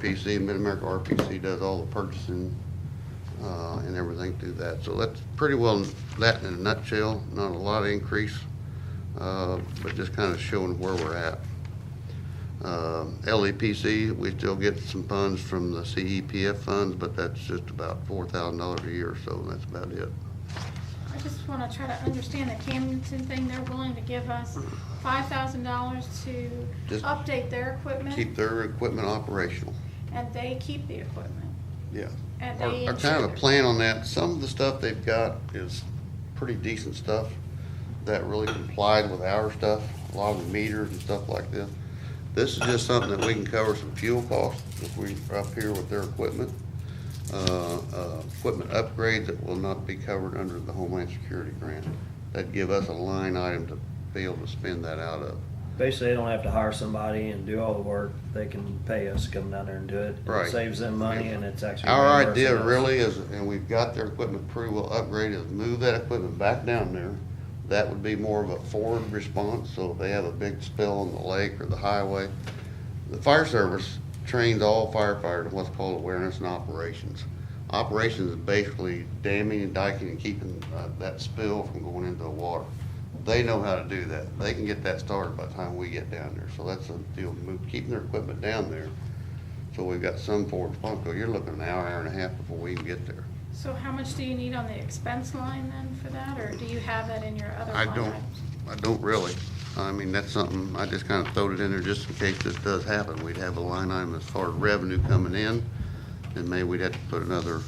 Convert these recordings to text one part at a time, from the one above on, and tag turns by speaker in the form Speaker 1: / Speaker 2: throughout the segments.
Speaker 1: RPC, Mid-America RPC does all the purchasing uh, and everything through that. So that's pretty well that in a nutshell, not a lot of increase, uh, but just kind of showing where we're at. Um, LEPC, we still get some funds from the CEPF funds, but that's just about $4,000 a year, so that's about it.
Speaker 2: I just want to try to understand the Camdenton thing. They're willing to give us five thousand dollars to
Speaker 1: Just-
Speaker 2: update their equipment,
Speaker 1: Keep their equipment operational.
Speaker 2: and they keep the equipment.
Speaker 1: Yeah.
Speaker 2: And
Speaker 1: Our,
Speaker 2: they
Speaker 1: our kind of a
Speaker 2: insure.
Speaker 1: plan on that, some of the stuff they've got is pretty decent stuff that really complied with our stuff, a lot of the meters and stuff like this. This is just something that we can cover some fuel costs if we are up here with their equipment. Uh, uh, equipment upgrades that will not be covered under the Homeland Security grant. That'd give us a line item to be able to spend that out of.
Speaker 3: Basically, they don't have to hire somebody and do all the work. They can pay us, to come down there and do it.
Speaker 1: Right.
Speaker 3: It saves them money and it's actually.
Speaker 1: Our
Speaker 3: reimbursing
Speaker 1: idea
Speaker 3: us.
Speaker 1: really is, and we've got their equipment pretty well upgraded, is move that equipment back down there. That would be more of a forward response, so if they have a big spill on the lake or the highway. The fire service trains all firefighters in what's called awareness and operations. Operations is basically damming and diking and keeping uh, that spill from going into the water. They know how to do that. They can get that started by the time we get down there, so that's a deal, move, keeping their equipment down there. So we've got some forward response, 'cause you're looking an hour, hour and a half before we even get there.
Speaker 2: So how much do you need on the expense line then for that, or do you have that in your other
Speaker 1: I
Speaker 2: line
Speaker 1: don't,
Speaker 2: items?
Speaker 1: I don't really. I mean, that's something, I just kinda throwed it in there just in case this does happen. We'd have a line item as far as revenue coming in, and maybe we'd have to put another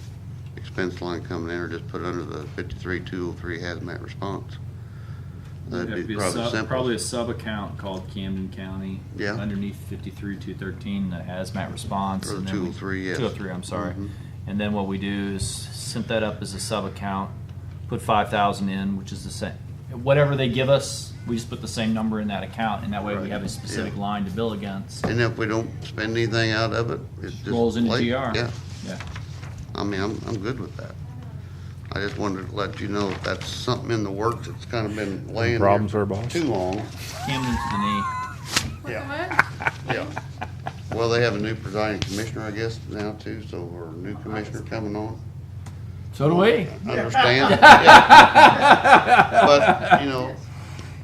Speaker 1: expense line coming in, or just put it under the fifty-three, two oh three hazmat response.
Speaker 4: It'd have
Speaker 1: That'd
Speaker 4: to
Speaker 1: be
Speaker 4: be a
Speaker 1: probably
Speaker 4: sub-
Speaker 1: simple.
Speaker 4: Probably a sub-account called Camden County.
Speaker 1: Yeah.
Speaker 4: Underneath fifty-three, two thirteen, the hazmat response.
Speaker 1: Or
Speaker 4: and then
Speaker 1: two
Speaker 4: we-
Speaker 1: oh three, yes.
Speaker 4: Two oh three, I'm sorry.
Speaker 1: Mhm.
Speaker 4: And then what we do is set that up as a sub-account, put five thousand in, which is the same, whatever they give us, we just put the same number in that account, and that way we
Speaker 1: Right.
Speaker 4: have a specific
Speaker 1: Yeah.
Speaker 4: line to bill against.
Speaker 1: And if we don't spend anything out of it, it's just.
Speaker 4: Rolls into
Speaker 1: late.
Speaker 4: GR.
Speaker 1: Yeah.
Speaker 4: Yeah.
Speaker 1: I mean, I'm, I'm good with that. I just wanted to let you know if that's something in the works that's kind of been laying there
Speaker 5: problems there, boss?
Speaker 1: Too long,
Speaker 4: Camden to the knee.
Speaker 2: What the
Speaker 1: Yeah.
Speaker 2: what?
Speaker 1: yeah. Well, they have a new presiding commissioner, I guess, now too, so, or a new commissioner coming on.
Speaker 4: So do we.
Speaker 1: Understand? Yeah. But, you know,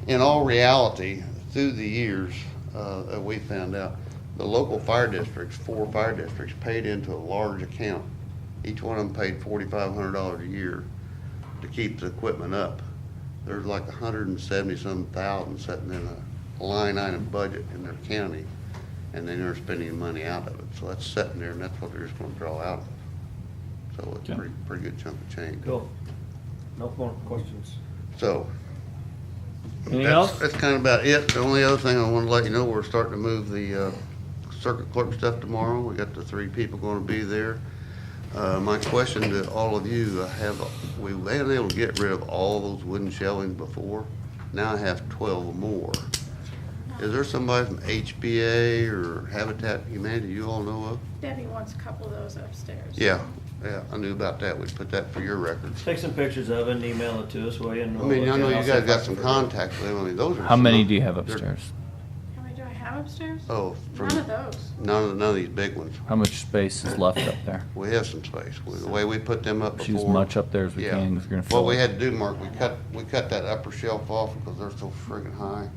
Speaker 1: in all reality, through the years, uh, that we found out, the local fire districts, four fire districts, paid into a large account. Each one of them paid forty-five hundred dollars a year to keep the equipment up. There's like a hundred and seventy-some thousand sitting in a line item budget in their county, and they never spend any money out of it. So that's sitting there, and that's what they're just gonna draw out of. So it's a
Speaker 4: Okay.
Speaker 1: pretty, pretty good chunk of change.
Speaker 3: Cool. No more questions.
Speaker 1: So.
Speaker 4: Anything
Speaker 1: that's-
Speaker 4: else?
Speaker 1: That's kind of about it. The only other thing I want to let you know, we're starting to move the uh, circuit clerk stuff tomorrow. We got the three people going to be there. Uh, My question to all of you, I have, we were able to get rid of all those wooden shelving before. Now I have twelve more. Is there somebody from HBA or Habitat for Humanity you all know of?
Speaker 2: Debbie wants a couple of those upstairs.
Speaker 1: Yeah, yeah, I knew about that. We put that for your records.
Speaker 3: Take some pictures of it and email it to us, will you? And
Speaker 1: I
Speaker 3: we'll
Speaker 1: mean,
Speaker 3: look
Speaker 1: I
Speaker 3: at
Speaker 1: know
Speaker 3: it.
Speaker 1: you
Speaker 3: I'll
Speaker 1: guys
Speaker 3: see
Speaker 1: got
Speaker 3: if
Speaker 1: some
Speaker 3: I can-
Speaker 1: contacts with them. I mean, those are.
Speaker 6: How many
Speaker 1: some-
Speaker 6: do you have
Speaker 1: they're-
Speaker 6: upstairs?
Speaker 2: How many do I have upstairs?
Speaker 1: Oh, from
Speaker 2: None of those.
Speaker 1: none of, none of these big ones.
Speaker 6: How much space is left up there?
Speaker 1: We have some space. We- The way we put them up
Speaker 6: Shoot
Speaker 1: before.
Speaker 6: as much up there as we
Speaker 1: Yeah.
Speaker 6: can if you're gonna
Speaker 1: What
Speaker 6: fill
Speaker 1: we
Speaker 6: it.
Speaker 1: had to do, Mark, we cut, we cut that upper shelf off because they're so friggin' high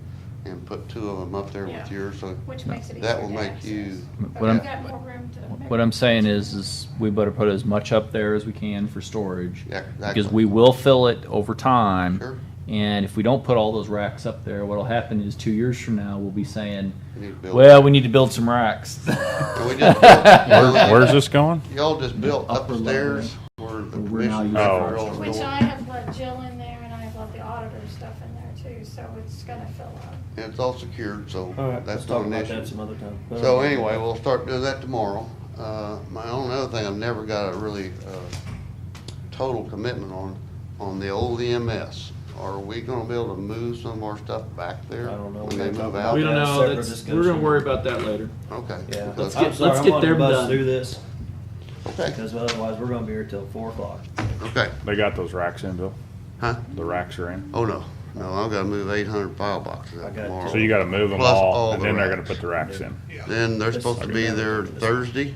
Speaker 1: and put two of them up there
Speaker 2: Yeah.
Speaker 1: with yours, so
Speaker 2: Which makes it easier
Speaker 1: that will
Speaker 2: to
Speaker 1: make
Speaker 2: access.
Speaker 1: you,
Speaker 2: But
Speaker 6: What
Speaker 2: we've
Speaker 6: I'm-
Speaker 2: got more room to make-
Speaker 6: What I'm saying is, is we better put as much up there as we can for storage.
Speaker 1: Yeah, exactly.
Speaker 6: Because we will fill it over
Speaker 1: Sure.
Speaker 6: time. And if we don't put all those racks up there, what'll happen is two years from now, we'll be saying,
Speaker 1: you need to build.
Speaker 6: well, we need to build some racks.
Speaker 1: And we just built-
Speaker 5: Where, where's this going?
Speaker 1: Y'all just built
Speaker 4: Upper level.
Speaker 1: upstairs where the
Speaker 4: We're now
Speaker 1: commission.
Speaker 4: using
Speaker 5: Oh.
Speaker 1: all
Speaker 2: Which
Speaker 1: doing.
Speaker 2: I have let Jill in there and I have let the auditor stuff in there too, so it's gonna fill up.
Speaker 1: And it's all secured, so
Speaker 3: All right, let's
Speaker 1: that's not
Speaker 3: talk
Speaker 1: an
Speaker 3: about
Speaker 1: issue.
Speaker 3: that some other time.
Speaker 1: So anyway, we'll start doing that tomorrow. Uh, my only other thing, I've never got a really, uh, total commitment on, on the old EMS. Are we gonna be able to move some of our stuff back there?
Speaker 3: I don't know.
Speaker 1: When they move
Speaker 4: We
Speaker 1: out?
Speaker 4: don't
Speaker 3: That's
Speaker 4: know.
Speaker 3: separate
Speaker 4: That's,
Speaker 3: discussion.
Speaker 4: we're gonna worry about that later.
Speaker 1: Okay.
Speaker 3: Yeah.
Speaker 1: because-
Speaker 3: I'm
Speaker 4: Let's get-
Speaker 3: sorry,
Speaker 4: let's
Speaker 3: I'm
Speaker 4: get
Speaker 3: wanting to
Speaker 4: them
Speaker 3: buzz
Speaker 4: done.
Speaker 3: Through this,
Speaker 1: Okay,
Speaker 3: because otherwise we're gonna be here till four o'clock.
Speaker 1: okay,
Speaker 5: They got those racks in, Bill.
Speaker 1: huh?
Speaker 5: The racks are in.
Speaker 1: Oh, no, no, I've gotta move eight hundred file boxes
Speaker 3: I
Speaker 1: out
Speaker 3: got
Speaker 1: tomorrow.
Speaker 5: So you got to move them
Speaker 1: Plus
Speaker 5: all,
Speaker 1: all
Speaker 5: and
Speaker 1: the
Speaker 5: then they're
Speaker 1: racks.
Speaker 5: going to put the racks in.
Speaker 1: Then they're supposed to be there Thursday.